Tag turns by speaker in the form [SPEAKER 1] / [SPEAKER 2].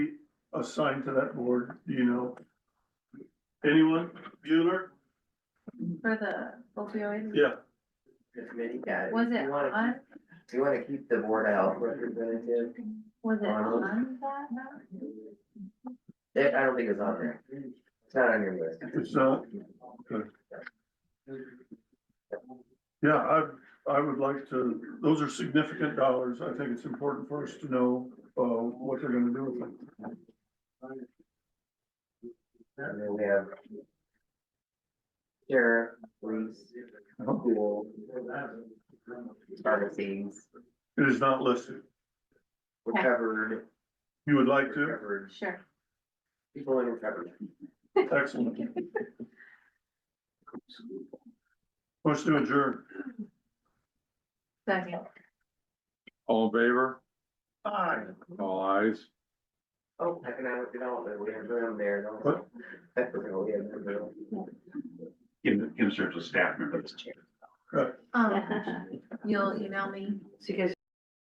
[SPEAKER 1] assigned to that board, do you know? Anyone, Bueller?
[SPEAKER 2] For the opioid,
[SPEAKER 1] Yeah,
[SPEAKER 3] the committee.
[SPEAKER 4] Yeah.
[SPEAKER 2] was
[SPEAKER 4] you
[SPEAKER 2] it
[SPEAKER 4] wanna
[SPEAKER 2] on,
[SPEAKER 4] keep- You wanna keep the board of health representative,
[SPEAKER 2] was it
[SPEAKER 4] Um,
[SPEAKER 2] on that? note?
[SPEAKER 4] They- I don't think it's on there, it's not on your list.
[SPEAKER 1] it's not, yeah, I, I would like to, those are significant dollars, I think it's important for us to know, uh, what they're gonna do with them.
[SPEAKER 4] And then we have. Sheriff, police, school. Pharmacies,
[SPEAKER 1] It is not listed,
[SPEAKER 4] we're covered,
[SPEAKER 1] you would
[SPEAKER 4] we're
[SPEAKER 1] like to,
[SPEAKER 4] covered,
[SPEAKER 2] Sure,
[SPEAKER 4] people in recovery.
[SPEAKER 1] excellent. Let's do adjourn,
[SPEAKER 2] second,
[SPEAKER 5] All in favor?
[SPEAKER 1] aye,
[SPEAKER 5] All eyes.
[SPEAKER 4] Oh, economic development, we have room there, don't
[SPEAKER 1] What?
[SPEAKER 4] we? That's what we have room.
[SPEAKER 6] in, insert a staff member.
[SPEAKER 2] um, you'll email me?
[SPEAKER 7] So you guys